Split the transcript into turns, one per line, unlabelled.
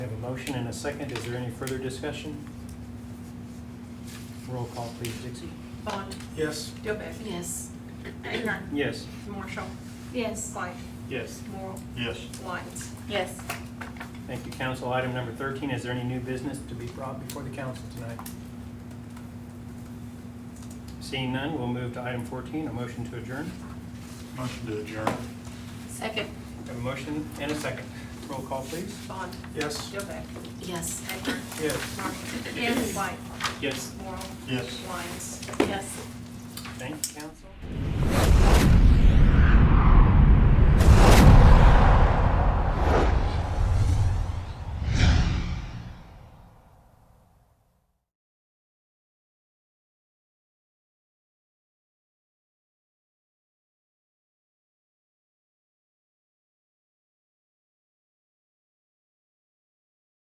We have a motion and a second. Is there any further discussion? Roll call, please, Dixie.
Bond,
Yes.
Dilbeck,
Yes.
Akron,
Yes.
Marshall,
Yes.
White,
Yes.
Morrow,
Yes.
Lyons.
Yes.
Thank you, council. Item number 13, is there any new business to be brought before the council tonight? Seeing none, we'll move to item 14, a motion to adjourn.
Motion to adjourn.
Second.
We have a motion and a second. Roll call, please.
Bond,
Yes.
Dilbeck,
Yes.
Akron,
Yes.
Marshall. Yes. White,
Yes.
Morrow,
Yes.
Lyons.
Yes.
Thank you, council.